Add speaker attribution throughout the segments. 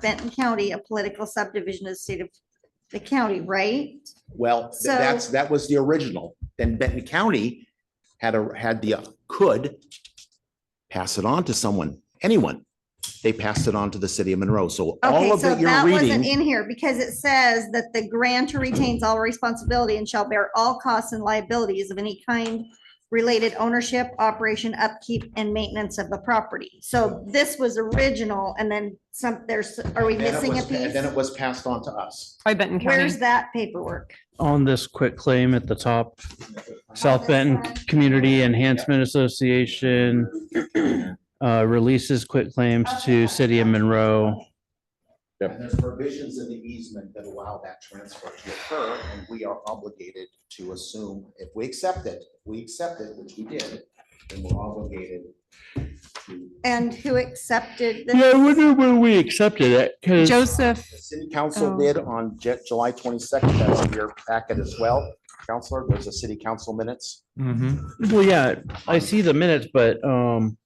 Speaker 1: Benton County a political subdivision of the state of the county, right?
Speaker 2: Well, th- that's,
Speaker 1: So-
Speaker 2: that was the original. Then Benton County had a, had the, uh, could pass it on to someone, anyone. They passed it on to the city of Monroe. So all
Speaker 1: Okay,
Speaker 2: of
Speaker 1: so
Speaker 2: that you're
Speaker 1: that wasn't
Speaker 2: reading,
Speaker 1: in here because it says that the grantor retains all responsibility and shall bear all costs and liabilities of any kind related ownership, operation, upkeep and maintenance of the property. So this was original and then some, there's, are we
Speaker 2: then it
Speaker 1: missing a
Speaker 2: was,
Speaker 1: piece?
Speaker 2: then it was passed on to us.
Speaker 3: By Benton County.
Speaker 1: Where's that paperwork?
Speaker 4: on this quick claim at the top,
Speaker 1: this
Speaker 4: South Benton
Speaker 1: one?
Speaker 4: Community Enhancement Association uh, releases quit claims to city of Monroe.
Speaker 2: And there's provisions in the easement that allow that transfer to occur, and we are obligated to assume, if we accept it, we accept it, which we did, then we're obligated to
Speaker 1: And who accepted this?
Speaker 4: Yeah, I wonder when we accepted it, because
Speaker 3: Joseph,
Speaker 2: The city council
Speaker 3: Oh.
Speaker 2: did on Ju- July twenty-second, that's in your packet as well. Counselor, there's a city council minutes.
Speaker 5: Mm-hmm.
Speaker 4: well, yeah, I see the minutes, but, um,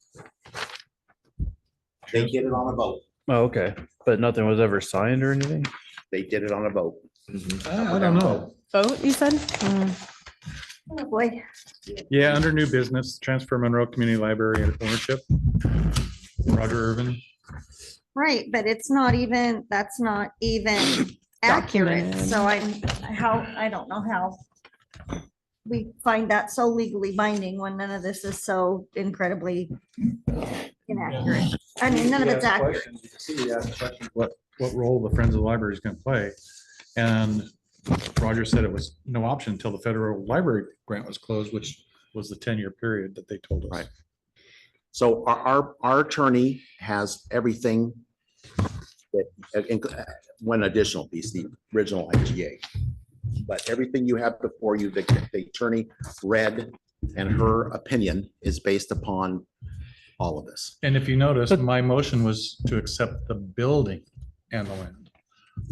Speaker 2: They did it on a vote.
Speaker 4: oh, okay, but nothing was ever signed or anything?
Speaker 2: They did it on a vote. Mm-hmm.
Speaker 5: I I don't know.
Speaker 3: vote, you said? Hmm.
Speaker 1: Oh, Boy.
Speaker 5: Yeah, under new business, transfer Monroe Community Library and ownership. Roger Irvin.
Speaker 1: Right, but it's not even, that's not even accurate,
Speaker 3: Documented.
Speaker 1: so I'm, how, I don't know how. We find that so legally binding when none of this is so incredibly inaccurate. I mean, none of it's accurate.
Speaker 5: What, what role the Friends of the Library is going to play? And Roger said it was no option until the federal library grant was closed, which was the ten-year period that they told us.
Speaker 2: Right. So our, our, our attorney has everything that, uh, inc- uh, one additional piece, the original IGA. But everything you have before you, the, the attorney read and her opinion is based upon all of this.
Speaker 5: And if you notice, my motion was to accept the building and the land.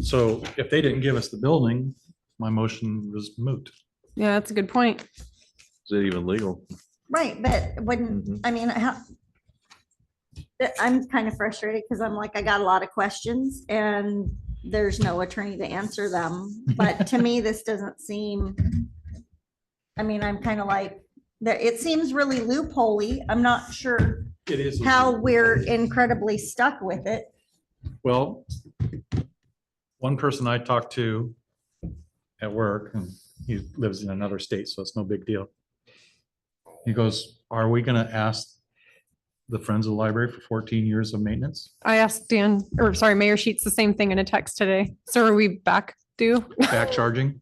Speaker 5: So if they didn't give us the building, my motion was moot.
Speaker 3: Yeah, that's a good point.
Speaker 6: Is it even legal?
Speaker 1: Right, but when, I mean, how? that- I'm kind of frustrated because I'm like, I got a lot of questions and there's no attorney to answer them. But to me, this doesn't seem, I mean, I'm kind of like, that, it seems really loopholey. I'm not sure
Speaker 5: It is.
Speaker 1: how we're incredibly stuck with it.
Speaker 5: Well, one person I talked to at work, and he lives in another state, so it's no big deal. He goes, are we gonna ask the Friends of the Library for fourteen years of maintenance?
Speaker 3: I asked Dan, or sorry, Mayor Sheets, the same thing in a text today. So are we back due?
Speaker 5: Back charging?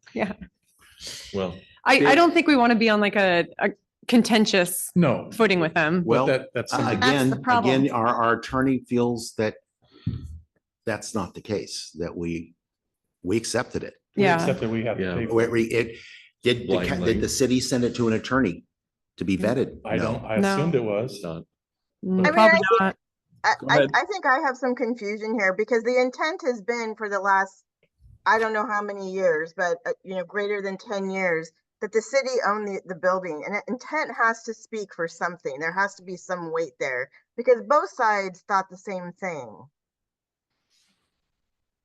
Speaker 6: Well,
Speaker 3: I, I don't think we want to be on like a, a contentious
Speaker 5: No.
Speaker 3: footing with them.
Speaker 5: But
Speaker 2: Well,
Speaker 5: that, Ah, that's something,
Speaker 2: Again,
Speaker 1: the
Speaker 2: again,
Speaker 1: problem.
Speaker 2: our, our attorney feels that that's not the case, that we, we accepted it.
Speaker 3: Yeah.
Speaker 5: except that we have to
Speaker 6: Yeah.
Speaker 5: pay for
Speaker 2: We-
Speaker 5: it.
Speaker 2: we- it- did, the ca-
Speaker 6: Blindly.
Speaker 2: did the city send it to an attorney to be vetted?
Speaker 5: I don't,
Speaker 2: No.
Speaker 5: I
Speaker 3: No.
Speaker 5: assumed it was.
Speaker 6: it's not. I
Speaker 3: Mm,
Speaker 7: mean,
Speaker 3: probably
Speaker 7: I
Speaker 3: not.
Speaker 7: I,
Speaker 6: Go
Speaker 7: I,
Speaker 6: ahead.
Speaker 7: I think I have some confusion here because the intent has been for the last, I don't know how many years, but, uh, you know, greater than ten years, that the city owned the, the building and it- intent has to speak for something. There has to be some weight there because both sides thought the same thing.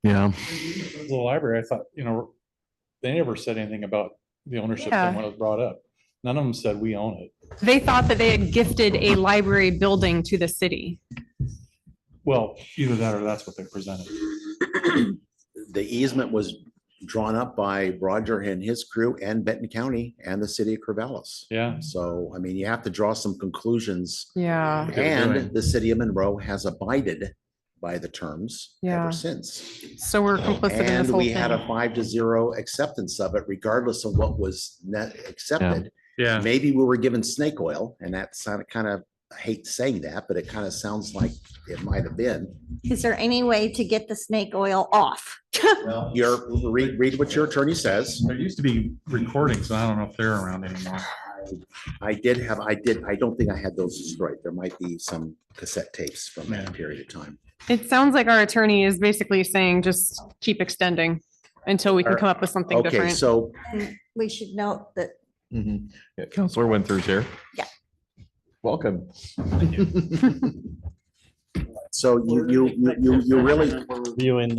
Speaker 6: Yeah.
Speaker 5: Friends of The library, I thought, you know, they never said anything about the ownership
Speaker 3: Yeah.
Speaker 5: thing when it was brought up. None of them said we own it.
Speaker 3: They thought that they had gifted a library building to the city.
Speaker 5: Well, either that or that's what they presented.
Speaker 2: The easement was drawn up by Roger and his crew and Benton County and the city of Corvallis.
Speaker 5: Yeah.
Speaker 2: So, I mean, you have to draw some conclusions.
Speaker 3: Yeah.
Speaker 5: they're doing.
Speaker 2: And the city of Monroe has abided by the terms
Speaker 3: Yeah.
Speaker 2: ever since.
Speaker 3: So we're complicit in this
Speaker 2: And
Speaker 3: whole
Speaker 2: we had a
Speaker 3: thing.
Speaker 2: five to zero acceptance of it regardless of what was net accepted.
Speaker 5: Yeah.
Speaker 2: Maybe we were given snake oil and that sounded kind of, I hate saying that, but it kind of sounds like it might have been.
Speaker 1: Is there any way to get the snake oil off?
Speaker 2: Well, Your, read, read what your attorney says.
Speaker 5: There used to be recordings, and I don't know if they're around anymore.
Speaker 2: I did have, I did, I don't think I had those destroyed. There might be some cassette tapes from
Speaker 5: Yeah.
Speaker 2: that period of time.
Speaker 3: It sounds like our attorney is basically saying just keep extending until we can
Speaker 2: Or-
Speaker 3: come up with something
Speaker 2: Okay,
Speaker 3: different.
Speaker 2: so
Speaker 1: We should note that
Speaker 6: Yeah, Counselor Winther's here.
Speaker 1: Yeah.
Speaker 6: Welcome.
Speaker 2: So you, you, you, you really,
Speaker 4: Reviewing